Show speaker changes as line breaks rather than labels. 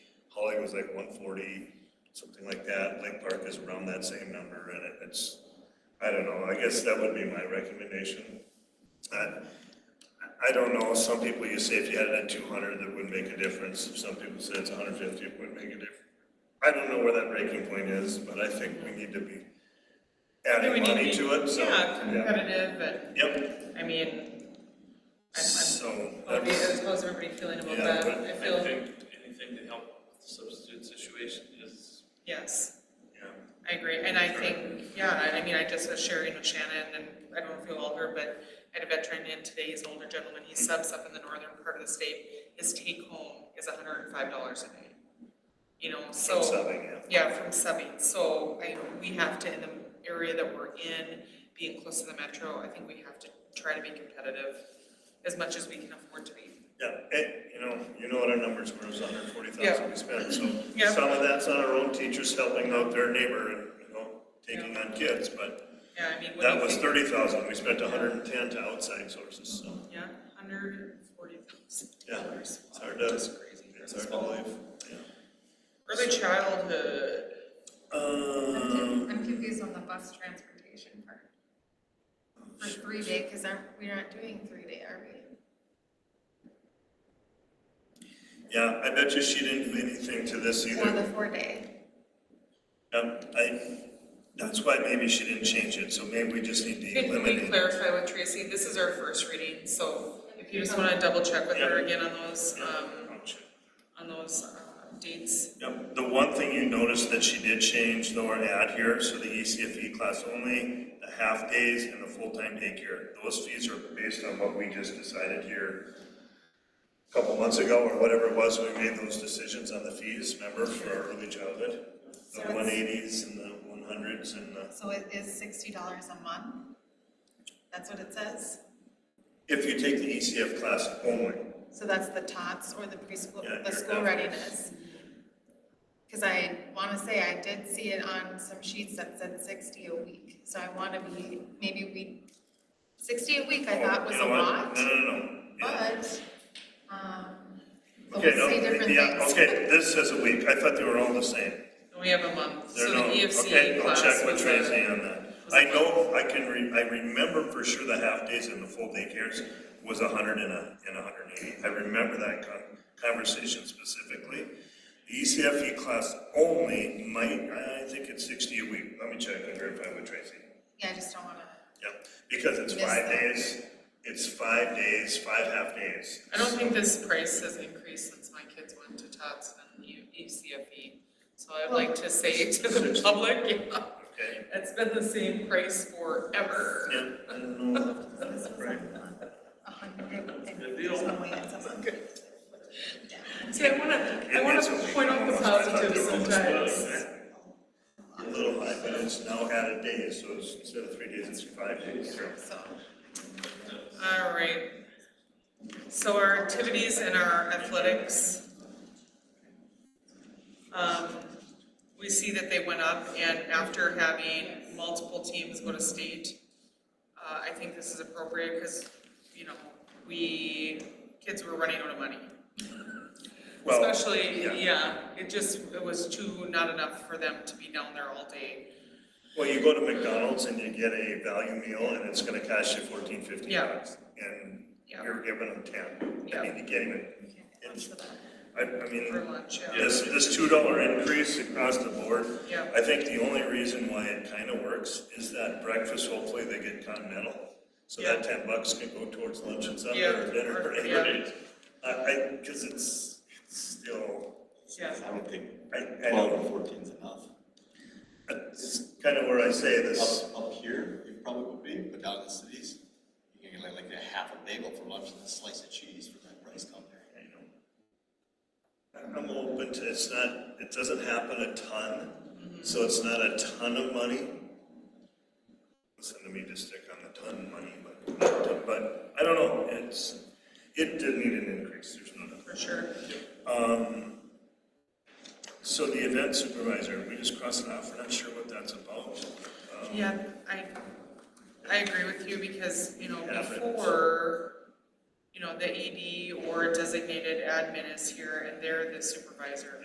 Lake was like one forty, something like that, Lake Park is around that same number, and it- it's, I don't know, I guess that would be my recommendation. I, I don't know, some people, you say if you had it at two hundred, that would make a difference, if some people say it's hundred fifty, it would make a difference. I don't know where that breaking point is, but I think we need to be
We
adding
need
money to it, so.
Yeah, competitive, and,
Yep,
I mean, I'm,
so.
I'm, I'll be
that's-
as close as everybody feeling about
Yeah,
that,
but
I
I
feel,
think anything to help with the substitute situation is,
yes,
yeah.
I agree, and I think, yeah, I- I mean, I just was sharing with Shannon, and I don't feel older, but I had a veteran in today, he's an older gentleman,
Mm-hmm.
he subs up in the northern part of the state, his take home is hundred and five dollars a day. You know, so.
From subbing, yeah.
Yeah, from subbing, so I, we have to, in the area that we're in, being close to the metro, I think we have to try to be competitive as much as we can afford to be.
Yeah, and, you know, you know what our numbers were, it was hundred forty
Yeah.
thousand we spent, so
Yeah.
some of that's on our own teachers helping out their neighbor and, you know, taking on kids, but
Yeah, I mean, what do you think?
that was thirty thousand, we spent hundred and ten to outside sources, so
Yeah, hundred and forty thousand
Yeah,
dollars.
it's hard to-
That's crazy. for
it's
this
hard to
fall.
believe, yeah.
Early childhood,
Um,
I'm confused on the bus transportation part. For three day, because aren't, we aren't doing three day, are we?
yeah, I bet you she didn't do anything to this
Or the
either.
four day?
Um, I, that's why maybe she didn't change it, so maybe we just need to
Could we
eliminate.
clarify with Tracy, this is our first reading, so if you just wanna double check with her again on those, um, on those, uh, dates.
Yep, the one thing you noticed that she did change though or add here, so the E ECFE class only, the half days and the full-time daycare, those fees are based on what we just decided here a couple months ago or whatever it was, we made those decisions on the fees, remember, for our early childhood?
So
The
it's-
one eighties and the one hundreds and the,
So it is sixty dollars a month? That's what it says?
if you take the ECF class only,
So that's the tots or the preschool,
Yeah,
the
your
school
F.
readiness? Because I want to say I did see it on some sheets that said sixty a week, so I want to be, maybe we, sixty a week I thought was
Oh, You
a
know what?
lot,
No, no, no, yeah.
but, um, so
Okay,
we'll
no,
say different things.
yeah, okay, this says a week, I thought they were all the same.
And we have a month,
There
so the E
no- okay,
EFC
I'll
class
check with
was
Tracy
a,
on that.
was
I
a-
know, I can re, I remember for sure the half days and the full day cares was a hundred and a, and a hundred and eighty. I remember that con- conversation specifically. The E ECFE class only might, I think it's sixty a week. Let me check and verify with Tracy.
Yeah, I just don't want to.
Yeah, because it's
Miss
five
that.
days, it's five days, five half days.
I don't think this price has increased since my kids went to Tots and E- ECFE. So I'd like to say to the public, yeah,
Okay,
it's been the same price forever.
yeah, I don't know.
So this was
Right.
a hundred and.
Good deal.
Somewhere it's a hundred. Yeah.
See, I wanna, I wanna
It's a week
point out the
almost. I thought
positives
they were almost
sometimes.
done. A little high, but it's now added days, so it's instead of three days, it's five days.
So,
All right. So our activities and our athletics. Um, we see that they went up and after having multiple teams go to state, uh, I think this is appropriate because, you know, we, kids were running out of money.
Well,
Especially,
yeah.
yeah, it just, it was too, not enough for them to be down there all day.
Well, you go to McDonald's and you get a value meal and it's gonna cost you fourteen, fifteen
Yeah.
bucks. And
Yeah.
you're giving them ten.
Yeah.
I mean, you can't even,
thanks for that.
I, I
For
mean,
lunch, yeah.
this, this two dollar increase across the board.
Yeah.
I think the only reason why it kinda works is that breakfast, hopefully they get continental. So that ten bucks can go towards lunch and supper
Yeah,
or dinner
or-
or
yeah.
anything. I, I, cause it's, it's still,
Yeah.
I don't think
I, I
twelve
don't,
or fourteen's enough.
it's kinda where I say this.
Up, up here, it probably would be, but down in the cities, you can get like, like a half a bagel for lunch and a slice of cheese for that price down there.
I know. I'm open to, it's not, it doesn't happen a ton, so it's not a ton of money. Listen to me just stick on the ton money, but, but I don't know, it's, it did need an increase, there's no doubt.
For sure.
So the event supervisor, we just crossed it off, we're not sure what that's about. Um,
Yeah, I, I agree with you because, you know,
Yeah, but-
before, E you know, the AD or designated admin is here and they're the supervisor.